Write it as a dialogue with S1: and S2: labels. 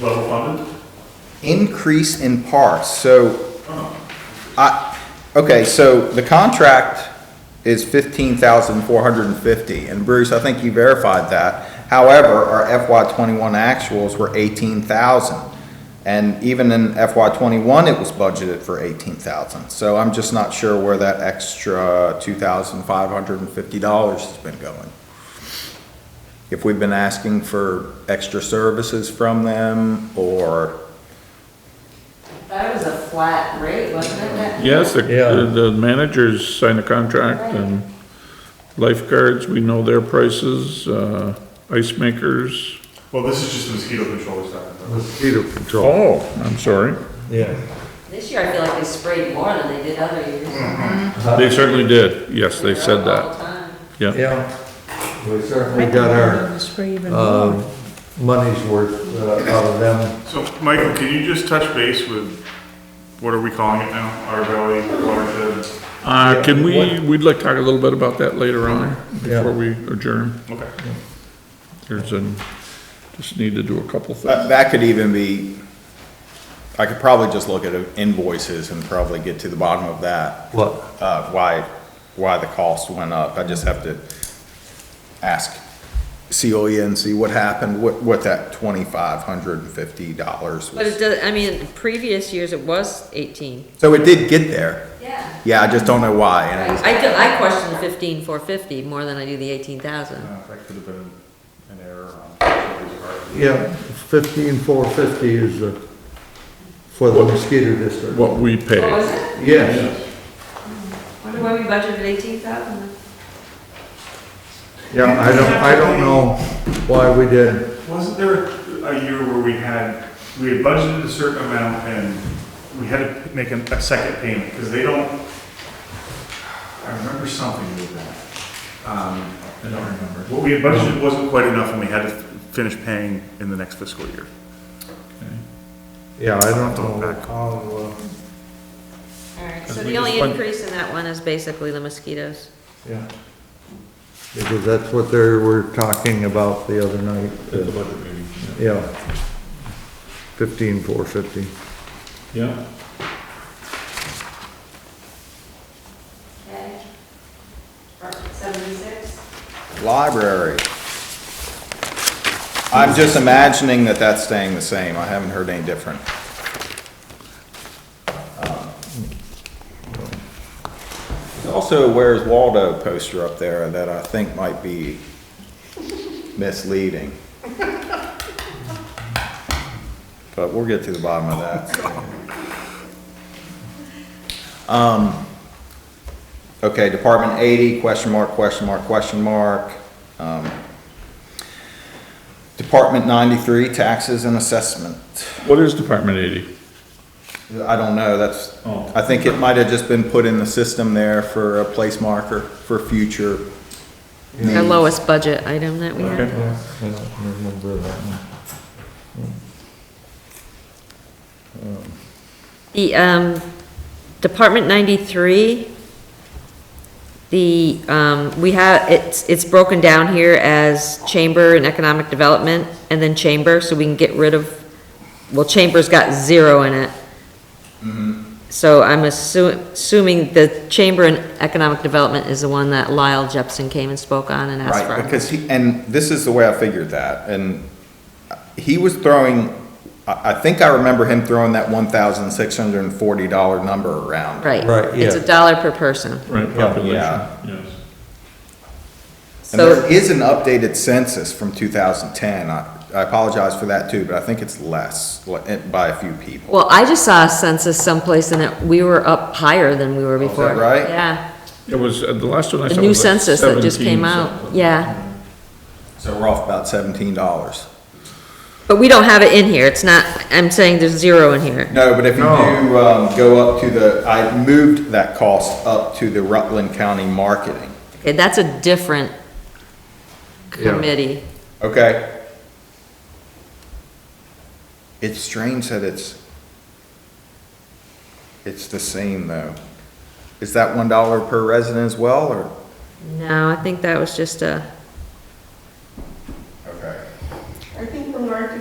S1: level funded?
S2: Increase in parts, so I, okay, so the contract is fifteen thousand four hundred and fifty, and Bruce, I think you verified that. However, our FY twenty-one actuals were eighteen thousand, and even in FY twenty-one, it was budgeted for eighteen thousand. So I'm just not sure where that extra two thousand five hundred and fifty dollars has been going. If we've been asking for extra services from them, or
S3: That was a flat rate, wasn't it?
S4: Yes, the,
S5: Yeah.
S4: the managers signed a contract and lifeguards, we know their prices, uh, ice makers.
S1: Well, this is just the mosquito control we're talking about.
S5: Mosquito control.
S4: Oh, I'm sorry.
S5: Yeah.
S3: This year I feel like they sprayed more than they did other years.
S4: They certainly did. Mm, Yes, they said
S3: All the
S4: that.
S3: time.
S4: Yeah.
S5: Yeah. We certainly got our um, money's worth uh, out of them.
S1: So, Michael, can you just touch base with, what are we calling it now? Our valley watershed?
S4: Uh, can we, we'd like to talk a little bit about that later on
S5: Yeah.
S4: before we adjourn.
S1: Okay.
S4: There's an, just need to do a couple things.
S2: That, that could even be, I could probably just look at invoices and probably get to the bottom of that,
S5: What?
S2: uh, why, why the cost went up. I just have to ask Celia and see what happened, what, what that twenty-five hundred and fifty dollars
S6: But it
S2: was.
S6: does, I mean, previous years it was eighteen.
S2: So it did get there.
S3: Yeah.
S2: Yeah, I just don't know why. and it was-
S6: I, do- I question fifteen four fifty more than I do the eighteen thousand.
S1: Uh, That could have been an error on somebody's part.
S5: Yeah, fifteen four fifty is the, for the mosquito district.
S4: What we
S6: What
S4: pay.
S6: was it?
S5: Yes,
S6: Wonder why we budgeted eighteen thousand?
S5: yeah, I don't, I don't know why we did.
S1: Wasn't there a year where we had, we had budgeted a certain amount and we had to make a a second payment, because they don't, I remember something with that. Um, I don't remember. What we had budgeted wasn't quite enough and we had to finish paying in the next fiscal year.
S5: Yeah, I don't
S1: Don't
S5: know
S1: back.
S5: how, uh,
S6: Alright,
S4: Cause
S6: so
S4: we
S6: the
S4: just
S6: only
S4: went-
S6: increase in that one is basically the mosquitoes.
S5: yeah. Because that's what they were talking about the other night. Yeah. Fifteen four fifty.
S4: Yeah.
S3: Okay. Seventy-six?
S2: Library. I'm just imagining that that's staying the same. I haven't heard any different. Um, there's Also, where's Waldo poster up there that I think might be misleading. But we'll get to the bottom of that. Um, okay, Department eighty, question mark, question mark, question mark. Um, Department ninety-three, taxes and assessment.
S4: What is Department eighty?
S2: I don't know, that's,
S4: Oh.
S2: I think it might have just been put in the system there for a place marker for future.
S6: Our
S2: needs.
S6: lowest budget item that we had.
S4: Okay.
S5: Yeah, I don't remember that one.
S6: The, um, Department ninety-three, the, um, we have, it's, it's broken down here as chamber and economic development, and then chamber, so we can get rid of, well, chamber's got zero in it.
S2: Mm-hmm.
S6: So I'm assu- assuming the chamber and economic development is the one that Lyle Jepson came and spoke on and asked for.
S2: Right, because he, and this is the way I figured that, and he was throwing, I, I think I remember him throwing that one thousand six hundred and forty dollar number around.
S6: Right.
S5: Right,
S6: It's
S5: yeah.
S6: a dollar per person.
S4: Right, population, yes.
S2: And there
S6: So,
S2: is an updated census from two thousand ten, I, I apologize for that too, but I think it's less, like, by a few people.
S6: well, I just saw a census someplace and it, we were up higher than we were
S2: Oh, is that
S6: before.
S2: right?
S6: Yeah.
S4: It was, uh, the last one I saw was
S6: The new
S4: like
S6: census that just
S4: 17
S6: came out,
S4: something.
S6: yeah.
S2: So we're off about seventeen dollars.
S6: But we don't have it in here, it's not, I'm saying there's zero in here.
S2: No, but if you
S5: No.
S2: do, um, go up to the, I moved that cost up to the Rutland County Marketing,
S6: Okay, that's a different
S5: Yeah.
S6: committee.
S2: okay? It's strange that it's, it's the same though. Is that one dollar per resident as well, or?
S6: No, I think that was just a,